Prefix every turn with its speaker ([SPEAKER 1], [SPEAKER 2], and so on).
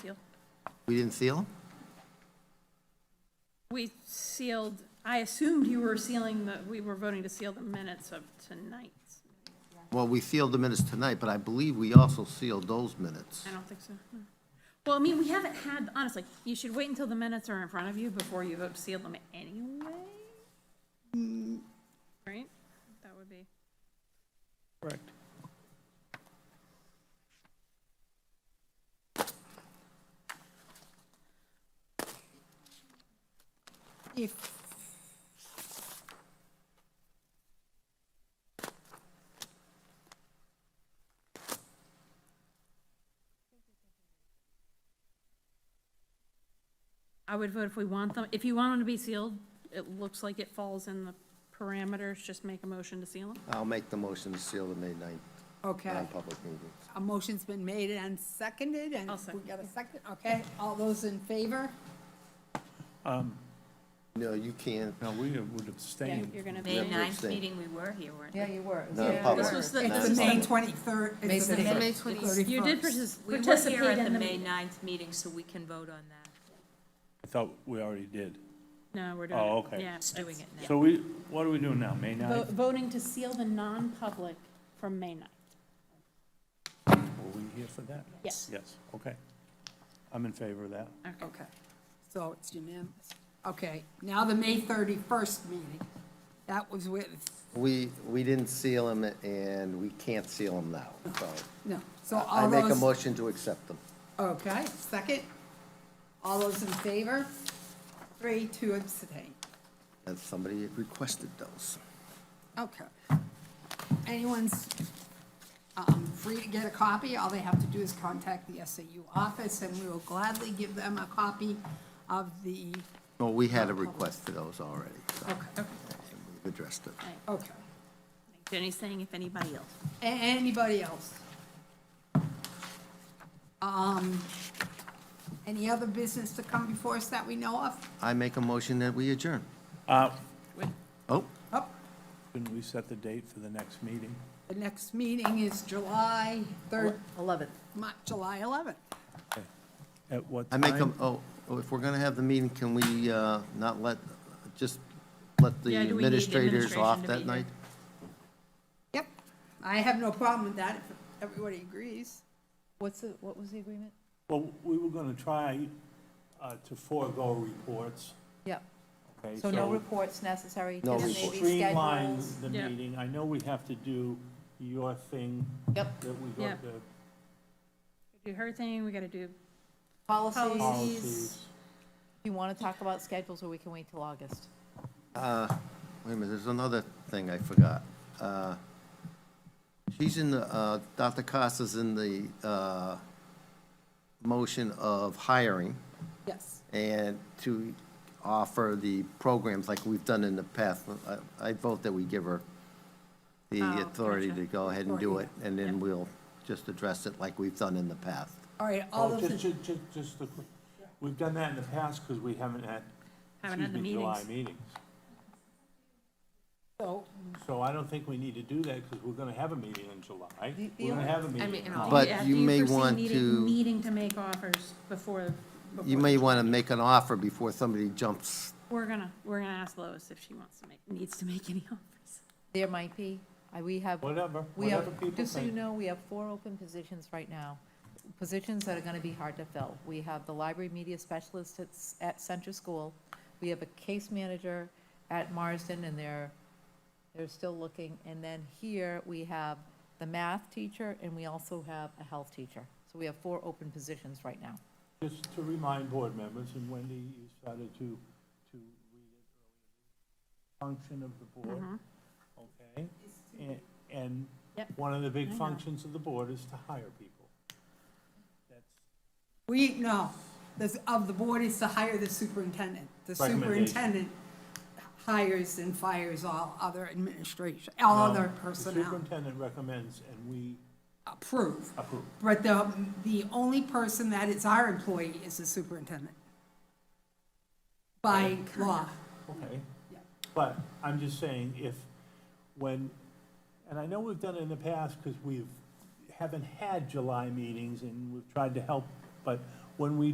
[SPEAKER 1] Seal.
[SPEAKER 2] We didn't seal them?
[SPEAKER 1] We sealed, I assumed you were sealing the, we were voting to seal the minutes of tonight.
[SPEAKER 2] Well, we sealed the minutes tonight, but I believe we also sealed those minutes.
[SPEAKER 1] I don't think so. no. Well, I mean, we haven't had, honestly, you should wait until the minutes are in front of you before you vote to seal them anyway. Right? That would be.
[SPEAKER 3] Correct.
[SPEAKER 4] If,
[SPEAKER 1] I would vote if we want them, if you want them to be sealed, it looks like it falls in the parameters, just make a motion to seal them.
[SPEAKER 2] I'll make the motion to seal the May 9th
[SPEAKER 4] okay,
[SPEAKER 2] non-public meeting.
[SPEAKER 4] a motion's been made and seconded, and
[SPEAKER 1] I'll
[SPEAKER 4] we
[SPEAKER 1] second.
[SPEAKER 4] got a second, okay, all those in favor?
[SPEAKER 2] No, you can't.
[SPEAKER 3] No, we would
[SPEAKER 1] Yeah,
[SPEAKER 3] abstain.
[SPEAKER 1] You're gonna
[SPEAKER 5] May
[SPEAKER 1] vote.
[SPEAKER 2] Yeah,
[SPEAKER 5] ninth
[SPEAKER 2] same.
[SPEAKER 5] meeting, we were here, weren't we?
[SPEAKER 6] Yeah, you were.
[SPEAKER 2] No, public.
[SPEAKER 1] This was the-
[SPEAKER 4] It's the May twenty-third, it's the
[SPEAKER 6] May
[SPEAKER 4] May
[SPEAKER 5] 21st.
[SPEAKER 4] thirty-first.
[SPEAKER 1] You did partic-
[SPEAKER 5] We were
[SPEAKER 1] participate
[SPEAKER 5] here at the
[SPEAKER 1] in the
[SPEAKER 5] May
[SPEAKER 1] meeting.
[SPEAKER 5] ninth meeting, so we can vote on that.
[SPEAKER 3] I thought we already did.
[SPEAKER 1] No, we're doing it.
[SPEAKER 3] Oh, okay.
[SPEAKER 1] Yeah,
[SPEAKER 5] Just doing
[SPEAKER 1] it's-
[SPEAKER 5] it now.
[SPEAKER 3] So we, what are we doing now, May
[SPEAKER 1] Vo-
[SPEAKER 3] 9th?
[SPEAKER 1] Voting to seal the non-public from May 9th.
[SPEAKER 3] Were we here for that?
[SPEAKER 1] Yes. Uh.
[SPEAKER 3] Yes, okay. I'm in favor of that.
[SPEAKER 4] Okay, so it's unanimous. Okay, now the May thirty-first meeting, that was with,
[SPEAKER 2] We, we didn't seal them and we can't seal them now, so.
[SPEAKER 4] no, so
[SPEAKER 2] I
[SPEAKER 4] all
[SPEAKER 2] make a
[SPEAKER 4] those,
[SPEAKER 2] motion to accept them.
[SPEAKER 4] okay, second. All those in favor? Three, two abstain.
[SPEAKER 2] And somebody requested those.
[SPEAKER 4] Okay. Anyone's um, free to get a copy. All they have to do is contact the SAU office, and we will gladly give them a copy of the,
[SPEAKER 2] Well, we had a request for those already, so
[SPEAKER 4] okay,
[SPEAKER 2] we've addressed it.
[SPEAKER 4] okay.
[SPEAKER 1] Jenny's saying if anybody else.
[SPEAKER 4] A- Anybody else? Um, Any other business to come before us that we know of?
[SPEAKER 2] I make a motion that we adjourn.
[SPEAKER 3] Uh,
[SPEAKER 2] Oh,
[SPEAKER 4] Oh,
[SPEAKER 3] Couldn't we set the date for the next meeting?
[SPEAKER 4] the next meeting is July 3rd,
[SPEAKER 6] Eleventh.
[SPEAKER 4] Mo- July 11th.
[SPEAKER 3] At what
[SPEAKER 2] I
[SPEAKER 3] time?
[SPEAKER 2] make a, oh, oh, if we're going to have the meeting, can we uh, not let, just let the
[SPEAKER 1] Yeah, do we need the
[SPEAKER 2] administrators
[SPEAKER 1] administration
[SPEAKER 2] off
[SPEAKER 1] to be
[SPEAKER 2] that
[SPEAKER 1] here?
[SPEAKER 2] night?
[SPEAKER 4] Yep, I have no problem with that if everybody agrees.
[SPEAKER 6] What's the, what was the agreement?
[SPEAKER 3] Well, we were gonna try uh, to forego reports,
[SPEAKER 6] Yeah,
[SPEAKER 3] okay?
[SPEAKER 6] so no reports necessary,
[SPEAKER 2] No
[SPEAKER 6] just
[SPEAKER 2] report.
[SPEAKER 6] maybe
[SPEAKER 3] Streamline
[SPEAKER 6] schedules.
[SPEAKER 3] the
[SPEAKER 1] Yeah.
[SPEAKER 3] meeting. I know we have to do your thing
[SPEAKER 6] Yep,
[SPEAKER 3] that we
[SPEAKER 1] Yeah.
[SPEAKER 3] got the
[SPEAKER 1] Do her thing, we gotta do,
[SPEAKER 6] policies.
[SPEAKER 3] policies.
[SPEAKER 6] If you want to talk about schedules, or we can wait till August.
[SPEAKER 2] Wait a minute, there's another thing I forgot. Uh, She's in the, uh, Dr. Costa's in the uh, motion of hiring
[SPEAKER 4] Yes.
[SPEAKER 2] and to offer the programs like we've done in the past. I I'd vote that we give her the
[SPEAKER 1] Oh,
[SPEAKER 2] authority to
[SPEAKER 1] gotcha.
[SPEAKER 2] go ahead and do it, and then we'll just address it like we've done in the past.
[SPEAKER 4] All right, all
[SPEAKER 3] Oh,
[SPEAKER 4] those,
[SPEAKER 3] just,
[SPEAKER 4] in-
[SPEAKER 3] just, just- just, the- we've done that in the past because we haven't had,
[SPEAKER 1] Haven't had
[SPEAKER 3] excuse
[SPEAKER 1] the
[SPEAKER 3] me, July
[SPEAKER 1] meetings.
[SPEAKER 3] meetings.
[SPEAKER 4] so,
[SPEAKER 3] So I don't think we need to do that because we're gonna have a meeting in July.
[SPEAKER 6] The- the
[SPEAKER 3] We're gonna
[SPEAKER 6] only-
[SPEAKER 3] have a meeting.
[SPEAKER 5] mean,
[SPEAKER 3] in
[SPEAKER 5] in
[SPEAKER 3] August.
[SPEAKER 2] But
[SPEAKER 1] Yeah,
[SPEAKER 2] you
[SPEAKER 1] do
[SPEAKER 2] may
[SPEAKER 1] foresee
[SPEAKER 2] want
[SPEAKER 1] needing-
[SPEAKER 2] to-
[SPEAKER 1] Needing to make offers before,
[SPEAKER 2] You may want to make an offer before somebody jumps.
[SPEAKER 1] we're gonna, we're gonna ask Lois if she wants to make, needs to make any offers.
[SPEAKER 6] There might be, I, we have.
[SPEAKER 3] Whatever,
[SPEAKER 6] We have,
[SPEAKER 3] whatever people
[SPEAKER 6] just so you
[SPEAKER 3] think.
[SPEAKER 6] know, we have four open positions right now, positions that are gonna be hard to fill. We have the library media specialist at, s- at Center School. We have a case manager at Marsden, and they're, they're still looking. And then here, we have the math teacher, and we also have a health teacher. So we have four open positions right now.
[SPEAKER 3] Just to remind board members, and Wendy, you started to, to read it earlier, function of the board,
[SPEAKER 1] Mm-hmm.
[SPEAKER 3] okay? And, and
[SPEAKER 1] Yep.
[SPEAKER 3] one of the
[SPEAKER 1] I
[SPEAKER 3] big
[SPEAKER 1] know.
[SPEAKER 3] functions of the board is to hire people. That's
[SPEAKER 4] we, no, this, of the board is to hire the superintendent. The
[SPEAKER 3] Recommendation.
[SPEAKER 4] superintendent hires and fires all other administration, all
[SPEAKER 3] No,
[SPEAKER 4] other
[SPEAKER 3] The
[SPEAKER 4] personnel.
[SPEAKER 3] superintendent recommends and we
[SPEAKER 4] Approve.
[SPEAKER 3] approve.
[SPEAKER 4] But the, the only person that is our employee is the superintendent. By law.
[SPEAKER 3] Okay. But I'm just saying, if, when, and I know we've done it in the past, because we've, haven't had July meetings, and we've tried to help, but when we